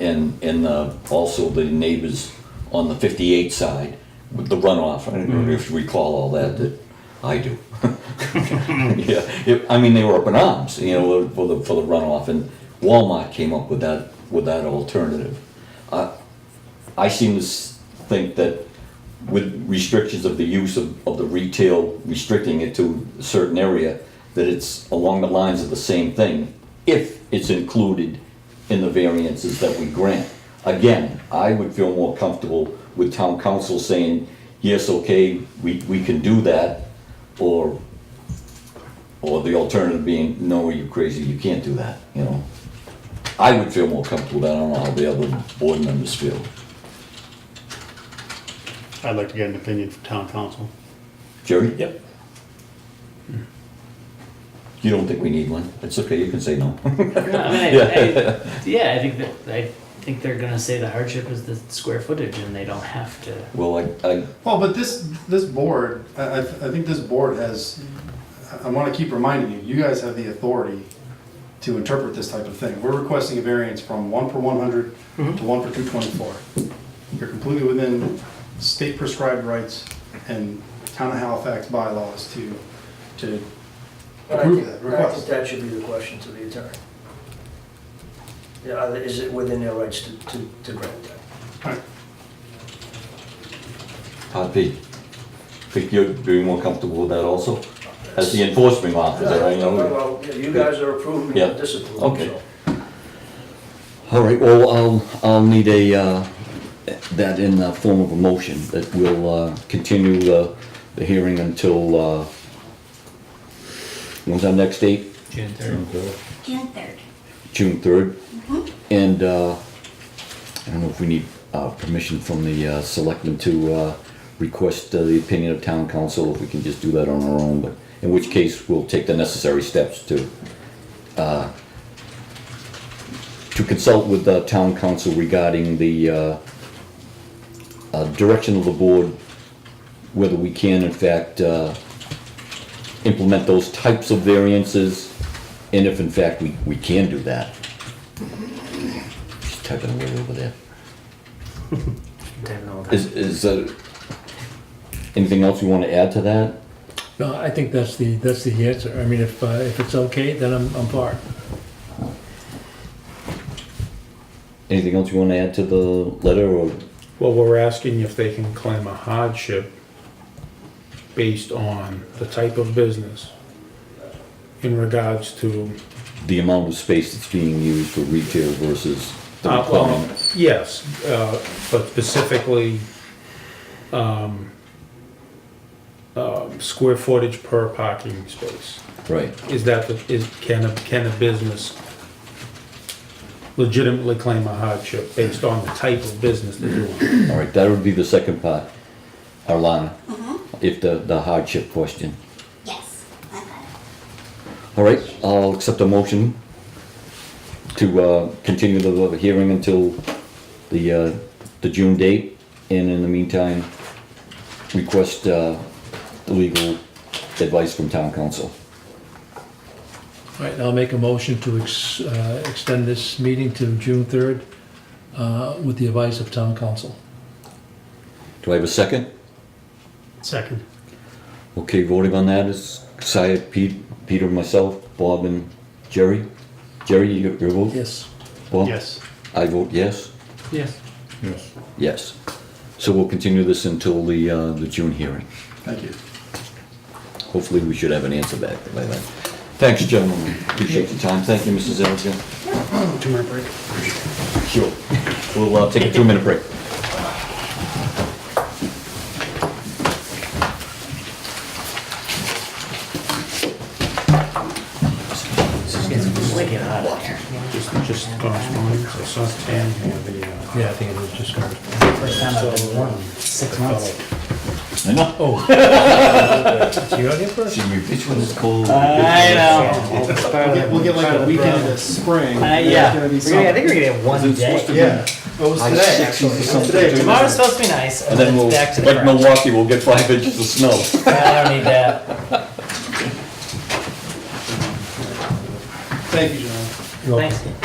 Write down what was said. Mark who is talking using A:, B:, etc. A: and, and uh, also the neighbors on the 58 side with the runoff. I don't know if you recall all that, that I do. Yeah, it- I mean, they were up in arms, you know, for the, for the runoff, and Walmart came up with that, with that alternative. I, I seem to s- think that with restrictions of the use of, of the retail, restricting it to a certain area, that it's along the lines of the same thing, if it's included in the variances that we grant. Again, I would feel more comfortable with town council saying, yes, okay, we, we can do that, or, or the alternative being, no, you crazy, you can't do that, you know? I would feel more comfortable, with that. I don't know how the other board members feel.
B: I'd like to get an opinion from town council.
A: Jerry? Hmm.
C: Yep.
A: You don't think we need one? It's okay, you can say no.
D: No, I mean, I, I, yeah, I think that I think they're gonna say the hardship is the square footage, and they don't have to.
A: Well, I, I,
E: Well, but this, this board, I, I I think this board has, I- I want to keep reminding you, you guys have the authority to interpret this type of thing. We're requesting a variance from one per 100 to one per 224. You're completely within state prescribed rights and town of Halifax bylaws to, to
F: But I
E: approve
F: think-
E: that
F: but I think
E: request.
F: that should be the question to the attorney. Yeah, are they- is it within their rights to, to, to grant that?
E: Right.
A: Todd P. Think you'd be more comfortable with that also? As the enforcement officer, I know.
F: Well, yeah, you guys are approving
A: Yeah.
F: and disapproving,
A: Okay.
F: so.
A: All right, well, I'll, I'll need a, uh, that in the form of a motion, that we'll, uh, continue the, the hearing until, uh, when's our next date?
D: June third.
G: June third.
A: June third. And, uh, I don't know if we need, uh, permission from the, uh, selectmen to, uh, request uh, the opinion of town council, if we can just do that on our own, but in which case, we'll take the necessary steps to, uh, to consult with, uh, town council regarding the, uh, uh, direction of the board, whether we can in fact, uh, implement those types of variances, and if in fact we, we can do that. She's typing away over there. Is, is, uh, anything else you wanna add to that?
C: No, I think that's the, that's the answer. I mean, if, uh, if it's okay, then I'm, I'm for it.
A: Anything else you wanna add to the letter, or,
H: Well, we're asking if they can claim a hardship based on the type of business in regards to,
A: the amount of space that's being used for retail versus the
H: Uh, well,
A: requirement?
H: yes, uh, but specifically, um, um, square footage per parking space.
A: Right,
H: Is that, the- is, can a, can a business legitimately claim a hardship based on the type of business they're doing?
A: all right, that would be the second part, Arlana, if the, the hardship question.
G: Yes, I got it.
A: All right, I'll accept a motion to uh, continue the hearing until the, uh, the June date. And in the meantime, request uh, legal advice from town council.
C: All right, I'll make a motion to ex, uh, extend this meeting to June third, uh, with the advice of town council.
A: Do I have a second?
B: Second.
A: Okay, voting on that is Saya, Pete, Peter, myself, Bob, and Jerry. Jerry, you- your vote?
C: Yes.
A: Bob?
B: Yes.
A: I vote yes.
D: Yes.
H: Yes.
A: Yes. So we'll continue this until the, uh, the June hearing.
E: Thank you.
A: Hopefully, we should have an answer back by then. Thanks, gentlemen. Appreciate your time. Thank you, Mrs. Ellison.
B: Two-minute break.
A: Sure. We'll uh, take a two-minute break.
D: It's wicked hot in here.
H: Just, just correspondence, I saw Tam had the, uh,
C: Yeah, I think it was just going
D: First time I've been warm in six months.
A: I know.
C: you out here first?
A: See, your bitch when it's cold.
D: I know. It's part of the-
E: We'll get like a weekend of spring.
D: Uh, yeah, We're gonna- I think we're gonna get one day.
E: Yeah. It was
A: High
E: today,
A: 60s or
E: actually.
A: something.
E: Today,
D: Tomorrow's supposed to be nice,
A: And
D: and
A: then
D: then
A: we'll,
D: it's back to the
A: like
D: ground.
A: Milwaukee, we'll get five inches of snow.
D: I don't need that.
E: Thank you, John.
D: Thanks.